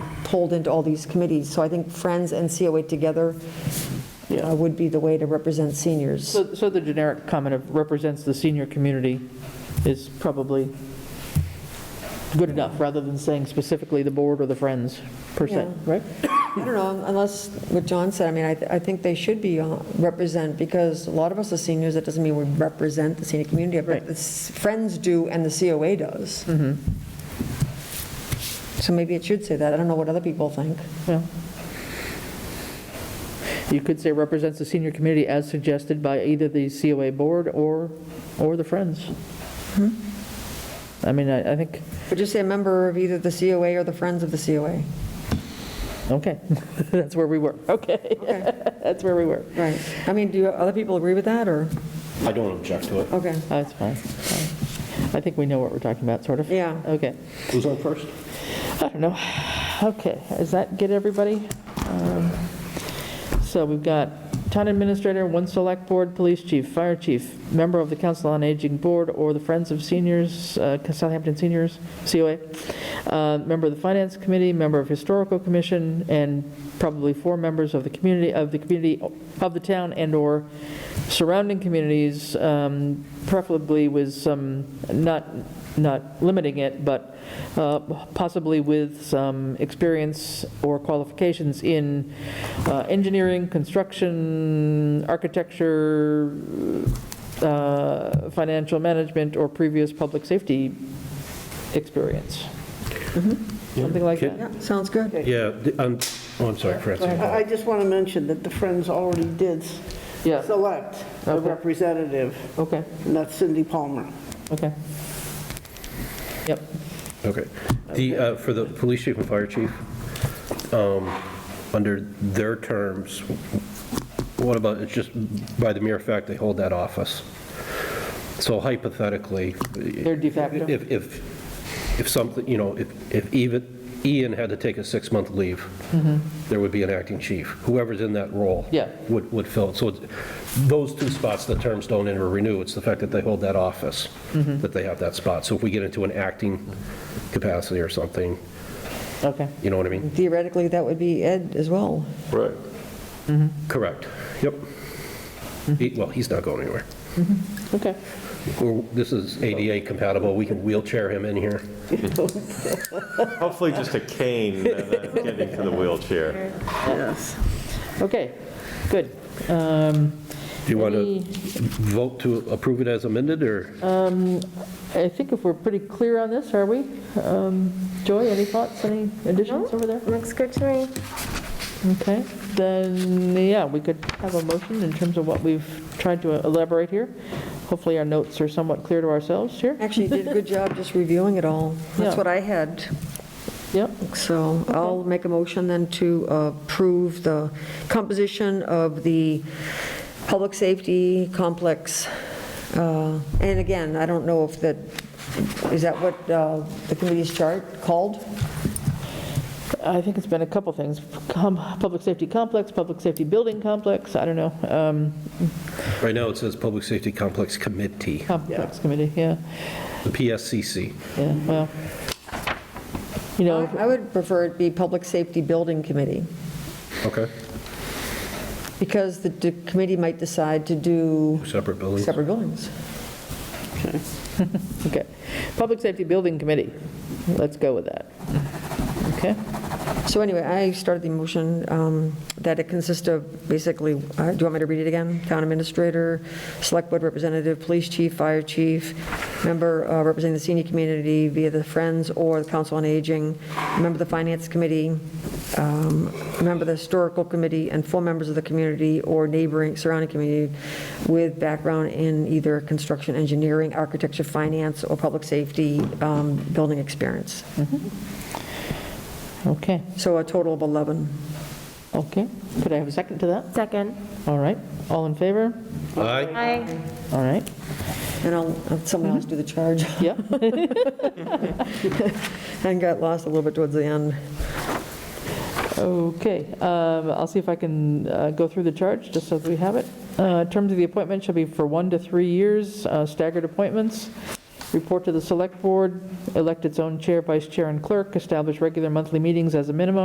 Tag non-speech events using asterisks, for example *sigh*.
pulled into all these committees. So I think Friends and COA together uh, would be the way to represent seniors. So, so the generic comment of represents the senior community is probably good enough, rather than saying specifically the board or the friends, per se, Yeah. right? I don't know, unless, what John said, I mean, I, th- I think they should be, uh, represent, because a lot of us are seniors, that doesn't mean we represent the senior community, but Right. the s- Friends do and the COA does. So maybe it should say that, I don't know what other people think. Yeah. You could say represents the senior community as suggested by either the COA board or, or the friends. Hmm? I mean, I, I think, But just say a member of either the COA or the Friends of the COA. okay, *laughs* that's where we were, okay, Okay, *laughs* that's where we were. right. I mean, do you- other people agree with that, or, I don't object to it. okay, That's fine, that's fine. I think we know what we're talking about, sort of. Yeah. Okay. Who's on first? I don't know. Okay, does that get everybody? Um, So we've got town administrator, one select board, police chief, fire chief, member of the council on aging board or the Friends of Seniors, uh, Southampton Seniors, COA, uh, member of the finance committee, member of historical commission, and probably four members of the community, of the community, of the town and/or surrounding communities, um, preferably with some, not, not limiting it, but uh, possibly with some experience or qualifications in uh, engineering, construction, architecture, uh, financial management, or previous public safety experience. Mm-hmm. Something like yeah, that. sounds good. Yeah, the- um, oh, I'm sorry, Fred. I I just want to mention that the Friends already did Yeah, select a Okay. representative, okay, and that's Cindy Palmer. okay. Yep, Okay. The, uh, for the police chief and fire chief, um, under their terms, what about, it's just by the mere fact they hold that office? So hypothetically, they're de facto. if, if, if something, you know, if, if even Ian had to take a six-month leave, there would be an acting chief. Whoever's in that role. Yeah. Would, would fill it. So it's- those two spots, the terms don't enter or renew. It's the fact that they hold that office, that they have that spot. So if we get into an acting capacity or something, Okay, you know what I mean? Theoretically, that would be Ed as well. Right. Correct. Yep. He- Well, he's not going anywhere. okay. We're- This is ADA compatible. We can wheelchair him in here. Hopefully just a cane and then getting to the wheelchair. Yes. Okay, good. Um, Do you want Any- to vote to approve it as amended, or? I think if we're pretty clear on this, are we? Um, Joy, any thoughts, any additions over there? Looks good to me. Okay, then, yeah, we could have a motion in terms of what we've tried to elaborate here. Hopefully, our notes are somewhat clear to ourselves here. Actually, you did a good job just reviewing it all. That's Yeah. what I had. Yep, So I'll make a motion then to approve the composition of the public safety complex. Uh, And again, I don't know if that, is that what uh, the committee's chart called? I think it's been a couple things, Com- public safety complex, public safety building complex, I don't know, um, Right now, it says Public Safety Complex Committee, complex committee, yeah, the PSCC. yeah, well. You know, I would prefer it be Public Safety Building Committee, Okay. because the d- committee might decide to do Separate buildings. separate buildings. okay, public safety building committee, let's go with that. Okay? So anyway, I started the motion um, that it consists of basically, uh, do you want me to read it again? Town administrator, select board representative, police chief, fire chief, member uh, representing the senior community via the Friends or the Council on Aging, member of the finance committee, um, member of the historical committee, and four members of the community or neighboring surrounding community with background in either construction, engineering, architecture, finance, or public safety, um, building experience. Okay, So a total of 11. okay. Could I have a second to that? Second. All right, all in favor? Aye. Aye. All right, And I'll, have someone else do the charge. *laughs* yeah, And got lost a little bit towards the end. okay. Um, I'll see if I can uh, go through the charge, just so that we have it. Uh, Terms of the appointment shall be for one to three years, uh, staggered appointments. Report to the select board, elect its own chair, vice chair, and clerk, establish regular monthly meetings as a minimum,